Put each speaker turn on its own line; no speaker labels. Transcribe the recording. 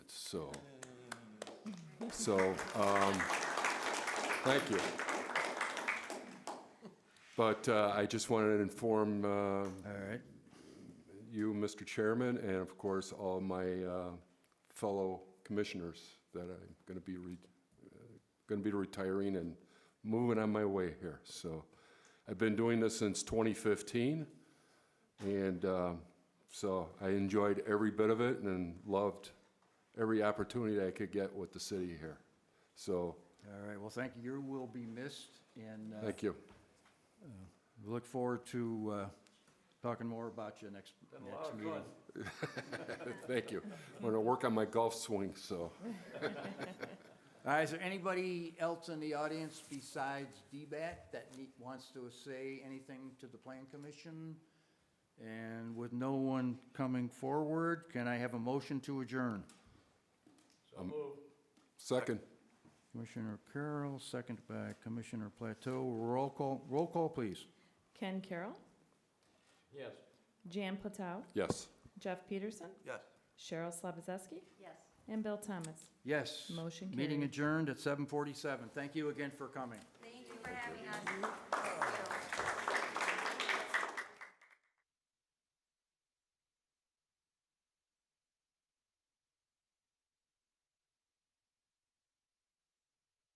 so, so, um, thank you. But uh, I just wanted to inform uh,
All right.
you, Mr. Chairman, and of course, all my uh, fellow commissioners that I'm going to be, going to be retiring and moving on my way here. So I've been doing this since 2015, and um, so I enjoyed every bit of it and loved every opportunity I could get with the city here. So,
All right. Well, thank you. You will be missed, and uh,
thank you.
we look forward to uh, talking more about you next, next meeting.
Thank you. I'm going to work on my golf swing, so.
All right, is there anybody else in the audience besides DBAT that nee- wants to say anything to the Plan Commission? And with no one coming forward, can I have a motion to adjourn?
Second,
Commissioner Carroll, second by Commissioner Plateau. Roll call, roll call, please.
Ken Carroll.
Yes.
Jan Platau.
yes.
Jeff Peterson.
Yes.
Cheryl Slabazeski.
Yes.
And Bill Thomas.
Yes.
Motion
Meeting
carried.
adjourned at 7:47. Thank you again for coming.
Thank you for having us.